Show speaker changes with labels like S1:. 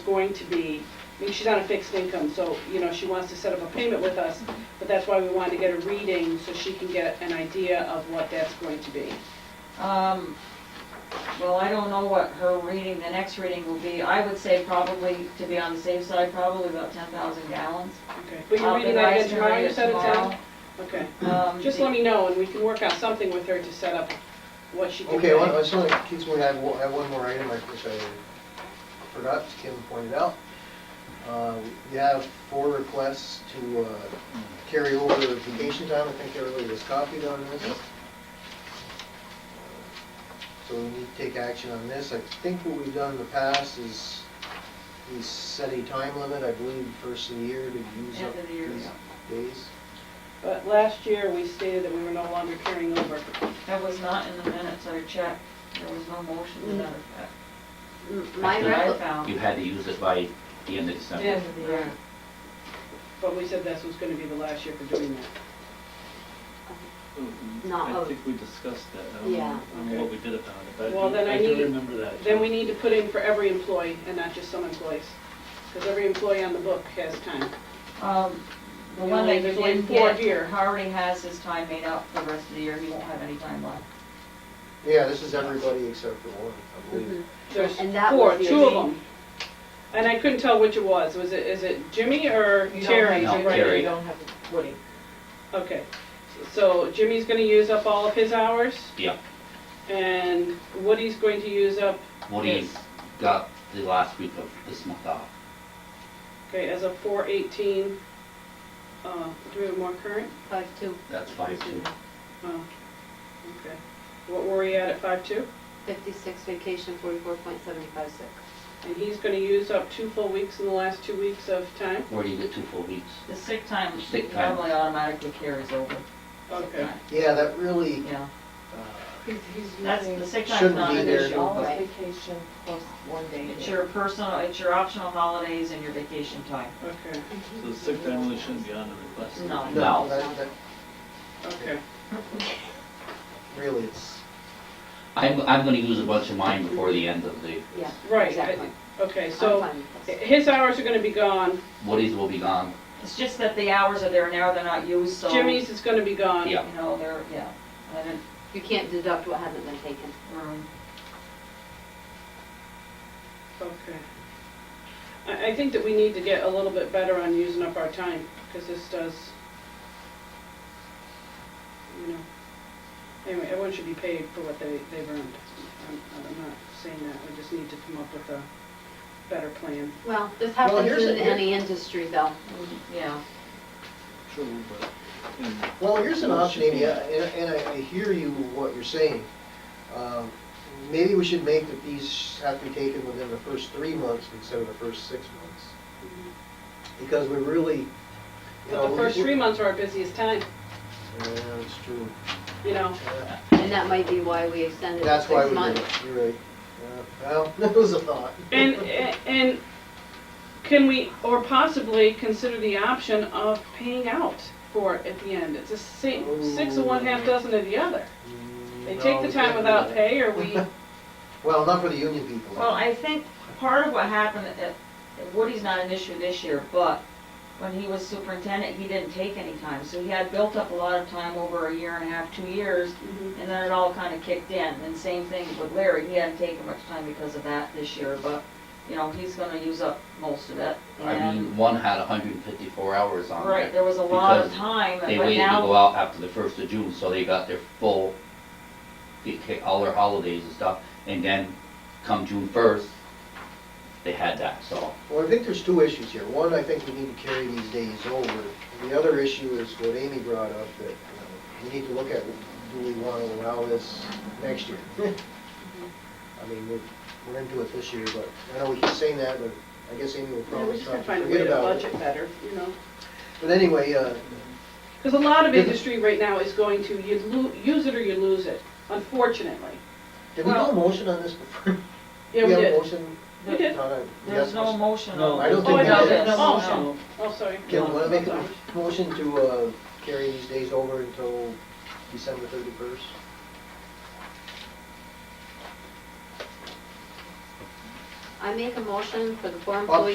S1: going to be, I mean, she's on a fixed income, so, you know, she wants to set up a payment with us, but that's why we wanted to get a reading, so she can get an idea of what that's going to be.
S2: Um, well, I don't know what her reading, the next reading will be. I would say probably, to be on the safe side, probably about ten thousand gallons.
S1: Okay. But you're
S2: I'll
S1: reading
S2: be
S1: that again
S2: nice to
S1: tomorrow,
S2: read
S1: you
S2: it
S1: said it's out?
S2: tomorrow.
S1: Okay,
S2: Um,
S1: just
S2: the-
S1: let me know, and we can work out something with her to set up what she can
S3: Okay, one,
S1: pay.
S3: I saw that Keith's one, I have one- I have one more item, I wish I forgot, Kim pointed out. Uh, We have four requests to uh, carry over vacation time, I think everybody was copied on this. So we need to take action on this, I think what we've done in the past is we set a time limit, I believe, first of the year to use
S2: End
S3: up
S2: of the year,
S3: these days.
S1: But last year, we stated that we were no longer carrying over.
S2: That was not in the minutes I checked. There was no motion to that effect.
S4: Mm, My
S2: That I
S4: recollection,
S2: found.
S5: You had to use it by the end of December.
S2: Right.
S1: But we said this was gonna be the last year for doing that.
S4: Not
S6: Mm-hmm. I
S4: of-
S6: think we discussed that, I don't
S4: Yeah.
S6: know what we did about it, but
S1: Well, then
S6: I
S1: I
S6: do- I
S1: need-
S6: do remember that.
S1: Then we need to put in for every employee and not just some employees, because every employee on the book has time.
S2: Um, the
S1: We
S2: one
S1: only-
S2: that you
S1: there's only
S2: didn't
S1: four
S2: get,
S1: here.
S2: Harvey has his time made up for the rest of the year. He won't have any time left.
S3: Yeah, this is everybody except for one, I believe.
S2: Mm-hmm.
S1: There's
S4: And that
S1: four,
S4: was the
S1: two of
S4: only-
S1: them. And I couldn't tell which it was. Was it, is it Jimmy or Terry?
S5: No,
S1: Right.
S5: Terry.
S1: Okay. So Jimmy's gonna use up all of his hours
S5: Yeah,
S1: and Woody's going to use up,
S5: Woody's got the last week of this month off.
S1: okay, as of four eighteen, uh, do we have more current?
S4: five two,
S5: That's five two.
S1: Oh, okay. What were we at at five two?
S4: fifty-six vacation, forty-four point seventy-five six.
S1: And he's gonna use up two full weeks in the last two weeks of time?
S5: Where do you get two full weeks?
S2: The sick time
S5: Sick time.
S2: normally automatically carries over.
S1: Okay.
S3: Yeah, that really,
S2: Yeah,
S3: uh,
S7: He's, he's
S2: that's,
S7: using
S2: the sick time's
S3: Shouldn't
S2: not
S3: be
S2: an
S3: there.
S2: issue,
S7: all his
S2: but-
S7: vacation plus one day.
S2: It's
S7: here.
S2: your personal, it's your optional holidays and your vacation time.
S1: Okay,
S6: So sick time really shouldn't be on the request.
S2: No.
S3: no, that, that,
S1: okay.
S3: really, it's.
S5: I'm, I'm gonna use a bunch of mine before the end of the,
S4: Yeah,
S1: Right, I-
S4: exactly.
S1: Okay,
S4: I'm
S1: so
S4: fine with this.
S1: his hours are gonna be gone,
S5: Woody's will be gone.
S2: It's just that the hours are there now, they're not used, so.
S1: Jimmy's is gonna be gone.
S5: Yeah.
S2: You know, they're, yeah, I didn't,
S4: You can't deduct what hasn't been taken.
S2: um,
S1: Okay. I, I think that we need to get a little bit better on using up our time, because this does, you know, anyway, everyone should be paid for what they, they've earned. I'm, I'm not saying that, we just need to come up with a better plan.
S4: Well, this
S3: Well,
S4: happens
S3: here's
S4: in
S3: a- here-
S4: any industry though.
S2: yeah.
S6: True, but, and
S3: Well, here's an option, Amy, and and I I hear you, what you're saying. Um, Maybe we should make that these have to be taken within the first three months instead of the first six months. Because we really, you know.
S1: But the first three months are our busiest time,
S3: months. Yeah, that's true.
S1: you know,
S3: Uh,
S4: And that might be why we extended it
S3: That's why we
S4: six
S3: did
S4: months.
S3: it, you're right. Yeah, Well, that was a thought.
S1: And, and can we, or possibly consider the option of paying out for it at the end? It's a si- six of one, half dozen of the other. They take the time without pay, Oh, or we,
S3: Well, not for the union people.
S2: Well, I think part of what happened, uh, Woody's not an issue this year, but when he was superintendent, he didn't take any time. So he had built up a lot of time over a year and a half, two years,
S5: Mm-hmm.
S2: and then it all kind of kicked in. And same thing with Larry, he hadn't taken much time because of that this year, but, you know, he's gonna use up most of it.
S5: I mean,
S2: And,
S5: one had hundred and fifty-four hours on
S2: right,
S5: there.
S2: there was a lot of
S5: because
S2: time, but
S5: They
S2: now.
S5: waited to go out after the first of June, so they got their full, they take all their holidays and stuff. And then come June first, they had that, so.
S3: Well, I think there's two issues here. One, I think we need to carry these days over. The other issue is what Amy brought up, that you know, we need to look at, do we want to allow this next year? I mean, we're, we're into it this year, but I know we keep saying that, but I guess Amy will
S1: we
S3: probably
S1: just gotta
S3: start
S1: find
S3: to
S1: a way
S3: forget
S1: to
S3: about
S1: budget
S3: it.
S1: better, you know?
S3: But anyway, uh,
S1: Because a lot of industry right now is going to, you lo, use it or you lose it, unfortunately.
S3: did we do
S2: Well-
S3: a motion on this before?
S1: Yeah,
S3: We
S1: we
S3: have a
S1: did.
S3: motion?
S1: We did.
S3: Not a-
S2: There's
S3: yes,
S2: no motion on.
S3: I
S1: Oh,
S3: don't think
S1: I
S3: we
S1: thought
S3: did.
S1: there was
S2: No,
S1: a
S2: no.
S1: motion. Oh, sorry.
S3: Kim, want to make a motion to uh, carry these days over until December 31st?
S4: I make a motion for the four
S3: Up
S4: employees